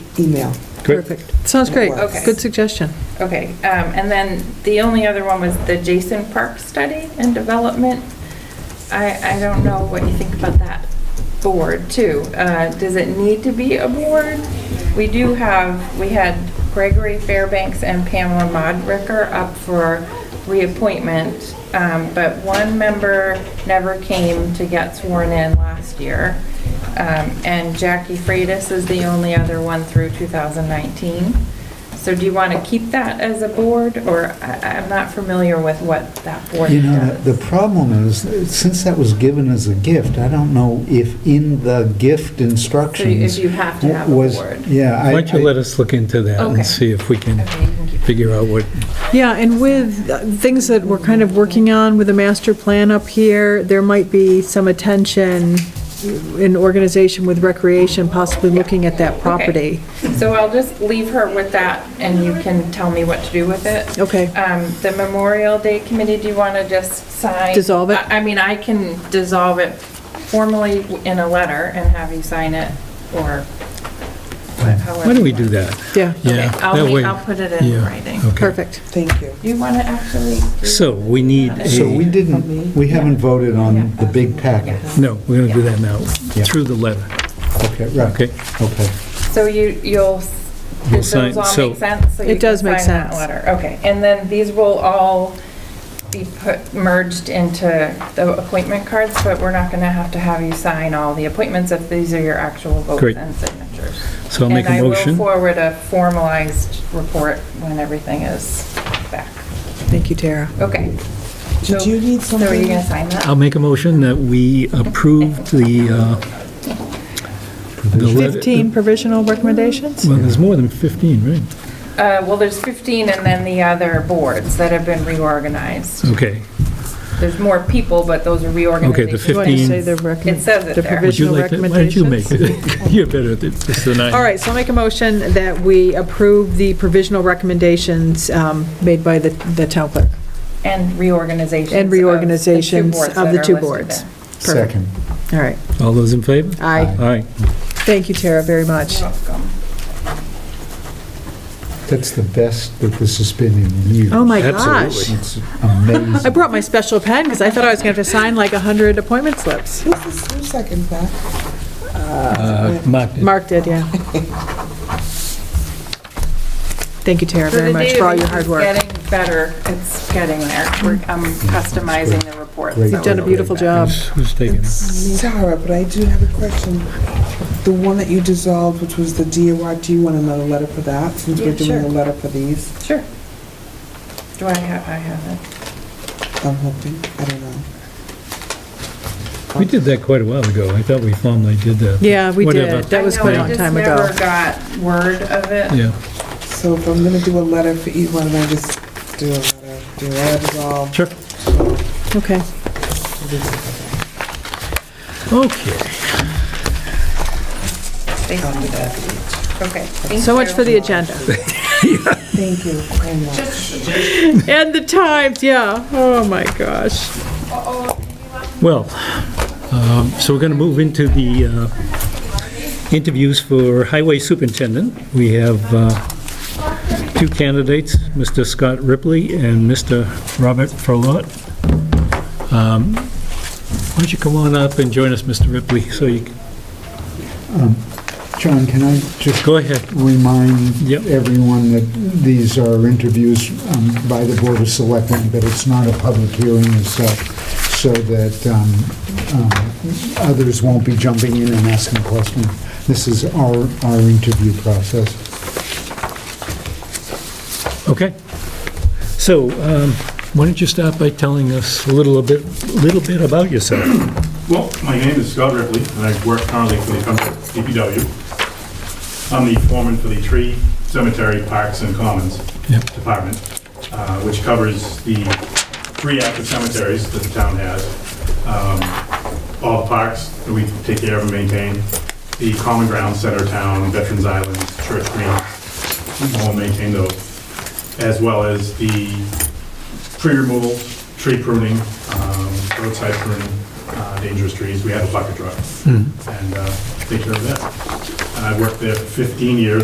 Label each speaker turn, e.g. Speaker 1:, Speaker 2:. Speaker 1: email.
Speaker 2: Great.
Speaker 1: Perfect.
Speaker 3: Sounds great.
Speaker 1: Okay.
Speaker 3: Good suggestion.
Speaker 4: Okay, um, and then the only other one was the Jason Park study and development. I, I don't know what you think about that board too. Uh, does it need to be a board? We do have, we had Gregory Fairbanks and Pamela Modricker up for reappointment, um, but one member never came to get sworn in last year. Um, and Jackie Freitas is the only other one through 2019. So do you want to keep that as a board, or I- I'm not familiar with what that board
Speaker 5: You know, the
Speaker 4: does?
Speaker 5: the problem is, since that was given as a gift, I don't know if in the gift instructions.
Speaker 4: you have to have a
Speaker 5: was-
Speaker 4: board.
Speaker 5: Yeah. I-
Speaker 2: Why don't you
Speaker 5: I-
Speaker 2: let us look into that
Speaker 4: Okay.
Speaker 2: and see if we can
Speaker 4: Okay, you can keep it.
Speaker 2: figure out what,
Speaker 3: Yeah, and with uh, things that we're kind of working on with the master plan up here, there might be some attention in organization with recreation, possibly looking at that property.
Speaker 4: So I'll just leave her with that, and you can tell me what to do with it.
Speaker 3: Okay.
Speaker 4: Um, The Memorial Day Committee, do you want to just sign?
Speaker 3: Dissolve it?
Speaker 4: I I mean, I can dissolve it formally in a letter and have you sign it, or however.
Speaker 2: why don't we
Speaker 4: you
Speaker 2: do
Speaker 4: want.
Speaker 2: that?
Speaker 3: Yeah,
Speaker 2: Yeah,
Speaker 4: Okay, I'll
Speaker 2: that
Speaker 4: ma-
Speaker 2: way-
Speaker 4: I'll put it in
Speaker 2: yeah,
Speaker 4: writing.
Speaker 2: okay.
Speaker 3: perfect.
Speaker 1: Thank you.
Speaker 4: Do you want to actually? do-
Speaker 2: So we need
Speaker 5: So we
Speaker 2: a,
Speaker 5: didn't, we haven't voted on the big packet.
Speaker 2: no, we're going to do that now,
Speaker 5: Yeah.
Speaker 2: through the letter,
Speaker 5: Okay, right,
Speaker 2: okay?
Speaker 5: okay.
Speaker 4: So you, you'll, s-
Speaker 2: You'll
Speaker 4: does
Speaker 2: sign-
Speaker 4: those all
Speaker 2: so-
Speaker 4: make sense? So
Speaker 3: It
Speaker 4: you can
Speaker 3: does make
Speaker 4: sign that
Speaker 3: sense.
Speaker 4: Letter, okay. And then these will all be put, merged into the appointment cards, but we're not going to have to have you sign all the appointments if these are your actual votes
Speaker 2: Great.
Speaker 4: and signatures.
Speaker 2: So I'll make a
Speaker 4: And I will
Speaker 2: motion.
Speaker 4: forward a formalized report when everything is back.
Speaker 3: Thank you, Tara.
Speaker 4: Okay.
Speaker 1: Did
Speaker 4: So-
Speaker 1: you need
Speaker 4: So are you going to
Speaker 1: something?
Speaker 4: sign that?
Speaker 2: I'll make a motion that we approve the, uh, the letter.
Speaker 3: 15 provisional recommendations?
Speaker 2: Well, there's more than 15, right?
Speaker 4: Uh, well, there's 15 and then the other boards that have been reorganized.
Speaker 2: Okay.
Speaker 4: There's more people, but those are reorganizations.
Speaker 3: You want to
Speaker 2: 15.
Speaker 3: say the recomm-
Speaker 4: It says it
Speaker 3: the
Speaker 4: there.
Speaker 2: Would you like to-
Speaker 3: provisional
Speaker 2: Why don't you make
Speaker 3: recommendations?
Speaker 2: it? You're better at this than I am.
Speaker 3: All right, so I'll make a motion that we approve the provisional recommendations um, made by the the town clerk.
Speaker 4: And reorganizations.
Speaker 3: And reorganizations of the two boards. Perfect.
Speaker 5: Second.
Speaker 3: All right.
Speaker 2: All those in favor?
Speaker 3: Aye.
Speaker 2: Aye.
Speaker 3: Thank you, Tara, very much.
Speaker 4: You're welcome.
Speaker 5: That's the best that this has been in years.
Speaker 3: Oh, my gosh.
Speaker 2: Absolutely.
Speaker 5: It's amazing.
Speaker 3: I brought my special pen because I thought I was going to have to sign like 100 appointment slips.
Speaker 1: Who's this, who's second back?
Speaker 2: Uh, Mark did.
Speaker 3: Mark did, yeah. Thank you, Tara, very much for all your hard work.
Speaker 4: Getting better, it's getting there. We're- I'm customizing the report.
Speaker 5: Great.
Speaker 4: so
Speaker 5: You've
Speaker 3: Done a
Speaker 4: it'll be
Speaker 3: beautiful
Speaker 4: better.
Speaker 3: job.
Speaker 2: Who's- Who's taking it?
Speaker 1: Sarah, but I do have a question. The one that you dissolved, which was the DOR, do you want another letter for that, since
Speaker 4: Yeah,
Speaker 1: we're doing a
Speaker 4: sure.
Speaker 1: letter for these?
Speaker 4: Sure. Do I have, I have
Speaker 1: I'm hoping, I don't know.
Speaker 2: We did that quite a while ago. I thought we formally did that.
Speaker 3: Yeah, we
Speaker 2: Whatever.
Speaker 3: did.
Speaker 4: it.
Speaker 3: That was
Speaker 4: I know,
Speaker 3: quite a long time
Speaker 4: I
Speaker 3: ago.
Speaker 4: just never got word of it.
Speaker 2: Yeah,
Speaker 1: So if I'm gonna do a letter for each one, then I just do a letter, do a letter dissolve.
Speaker 2: sure.
Speaker 3: Okay.
Speaker 2: Okay.
Speaker 4: They sent it. Okay. thank
Speaker 3: So much
Speaker 4: you.
Speaker 3: for the agenda.
Speaker 1: Thank you very much.
Speaker 3: And the times, yeah. Oh, my gosh.
Speaker 2: Well, um, so we're going to move into the uh, interviews for Highway Superintendent. We have uh, two candidates, Mr. Scott Ripley and Mr. Robert Frolot. Um, Why don't you come on up and join us, Mr. Ripley, so you, can-
Speaker 5: John, can I just
Speaker 2: go ahead.
Speaker 5: remind
Speaker 2: Yep.
Speaker 5: everyone that these are interviews um, by the Board of Selectmen, but it's not a public hearing and stuff, so that um, um, others won't be jumping in and asking questions. This is our, our interview process.
Speaker 2: Okay. So um, why don't you start by telling us a little bit, little bit about yourself?
Speaker 6: Well, my name is Scott Ripley, and I work currently for the company DPW. I'm the foreman for the Tree Cemetery Parks and Commons
Speaker 2: Yep.
Speaker 6: Department, uh, which covers the three active cemeteries that the town has, um, all the parks that we take care of and maintain, the common ground, center town, Veterans Island, Church Green, we all maintain those, as well as the tree removal, tree pruning, um, roadside pruning, uh, dangerous trees. We have a bucket truck. And uh, take care of that. And I worked there for 15 years.